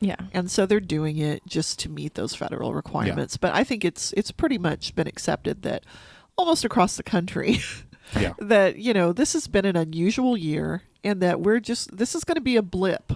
Yeah. And so they're doing it just to meet those federal requirements. But I think it's it's pretty much been accepted that almost across the country Yeah. that, you know, this has been an unusual year and that we're just this is going to be a blip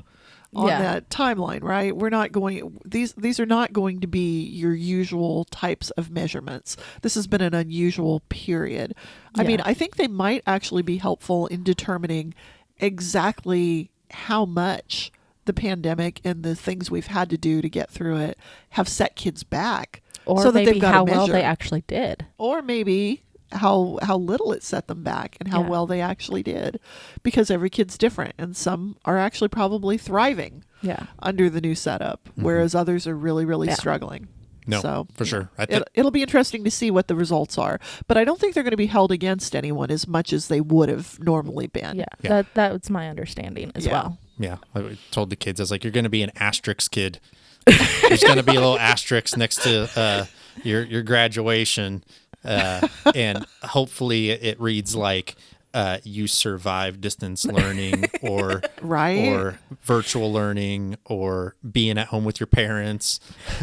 on Yeah. that timeline, right? We're not going these these are not going to be your usual types of measurements. This has been an unusual period. I Yeah. mean, I think they might actually be helpful in determining exactly how much the pandemic and the things we've had to do to get through it have set kids back Or so that maybe they've got how a measure. well they actually did. or maybe how how little it set them back and how Yeah. well they actually did because every kid's different and some are actually probably thriving Yeah. under the new setup, whereas others are really, really Yeah. struggling. Mm-hmm. No, so for sure. I it, think it'll be interesting to see what the results are, but I don't think they're going to be held against anyone as much as they would have normally been. Yeah. Yeah. That that's my understanding as Yeah. well. yeah, I told the kids I was like, you're going to be an asterisk kid. There's going to be a little asterisk next to uh, your your graduation, uh, and hopefully it reads like. Uh, you survive distance learning or Right? or virtual learning or being at home with your parents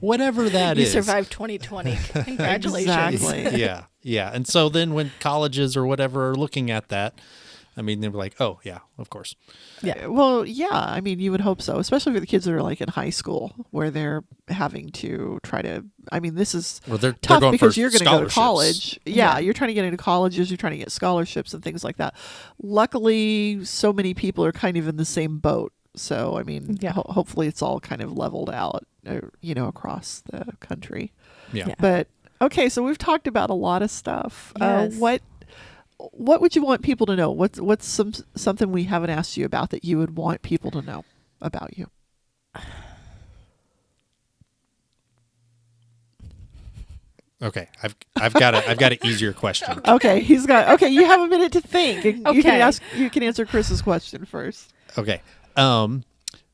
whatever that you is. survived 2020. Congratulations. Exactly. yeah, yeah. And so then when colleges or whatever are looking at that, I mean, they're like, oh yeah, of course. Yeah. Well, yeah. I mean, you would hope so, especially for the kids that are like in high school where they're having to try to. I mean, this is Well, they're- they're tough going because for you're going to go to scholarships. college. Yeah, you're trying to get into colleges, you're trying to get scholarships and things like that. Luckily, so many people are kind of in the same boat. So, I mean, Yeah. ho- hopefully it's all kind of leveled out, uh, you know, across the country. Yeah. Yeah. But okay, so we've talked about a lot of stuff. Yes. Uh, what what would you want people to know? What's what's some something we haven't asked you about that you would want people to know about you? Okay, I've I've got a I've got an easier question. Okay, he's got. Okay, you have a minute to think. and You Okay. can ask. You can answer Chris's question first. Okay, um,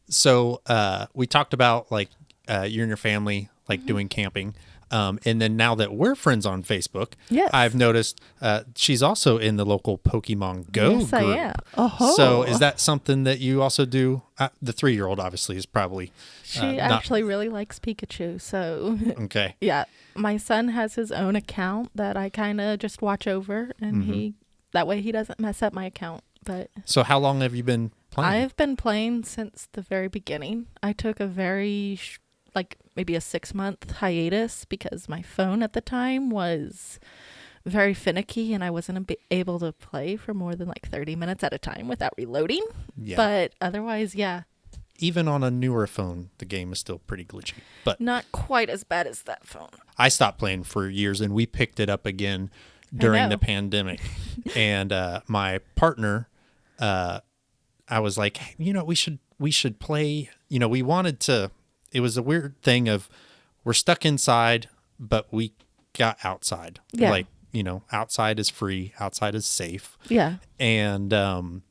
so uh, we talked about like uh, you and your family like Mm-hmm. doing camping. Um, and then now that we're friends on Facebook, Yes. I've noticed uh, she's also in the local Pokemon Go Yes, I group. am. Oh, So is that something that you also do? Uh, the three-year-old obviously is probably She uh, not- actually really likes Pikachu, so okay. yeah. My son has his own account that I kind of just watch over, and he that way he doesn't mess up my account. But So how long have you been playing? I've been playing since the very beginning. I took a very sh- like maybe a six month hiatus because my phone at the time was very finicky and I wasn't ab- able to play for more than like 30 minutes at a time without reloading. yeah. But otherwise, yeah, Even on a newer phone, the game is still pretty glitchy. But not quite as bad as that phone. I stopped playing for years, and we picked it up again during the know. pandemic. and uh, my partner, uh, I was like, "Hey, you know, we should we should play. You know, we wanted to. It was a weird thing of we're stuck inside, but we got outside. Yeah. Like you know, outside is free, outside is safe. Yeah. and um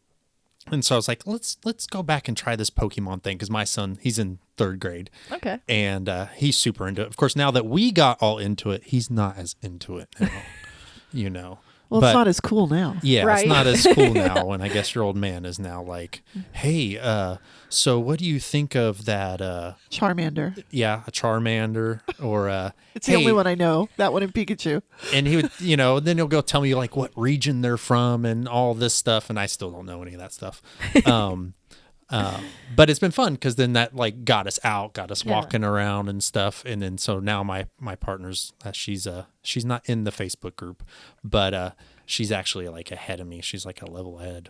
and so I was like, let's let's go back and try this Pokemon thing because my son he's in third grade, Okay. and uh, he's super into it. Of course, now that we got all into it, he's not as into it now, you know. well, But- it's not as cool now. yeah, Right. it's not as cool now. And I guess your old man is now like, hey, uh, so what do you think of that? Uh, Charmander. yeah, a Charmander or uh, It's the only "Hey, one I know. That one in Pikachu. and he would you know then he'll go tell me like what region they're from and all this stuff and i still don't know any of that stuff um uh, but it's been fun because then that like got us out got us Yeah. walking around and stuff and then so now my my partner's uh, she's uh she's not in the facebook group but uh she's actually like ahead of me she's like a level ahead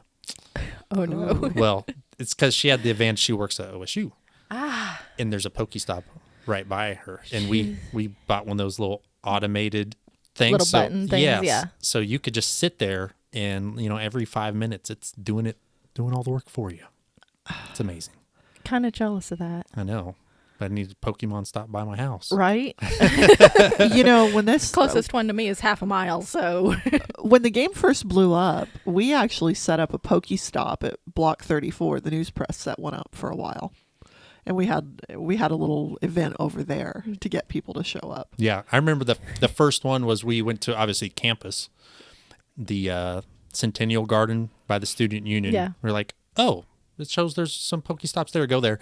Oh no. well it's because she had the advantage she works at osu ah and there's a pokestop right by her and we we bought one of those little automated things Little so, button things, yes. yeah. so you could just sit there and you know every five minutes it's doing it doing all the work for you it's amazing kind of jealous of that. i know but i need a pokemon stop by my house Right? you know when this Closest one to me is half a mile, so when the game first blew up, we actually set up a Pokestop at Block 34. The news press set one up for a while, and we had we had a little event over there to get people to show up. Yeah, I remember the the first one was we went to obviously campus, the uh, Centennial Garden by the Student Union. Yeah. we're like, oh, it shows there's some Pokestops there. Go there,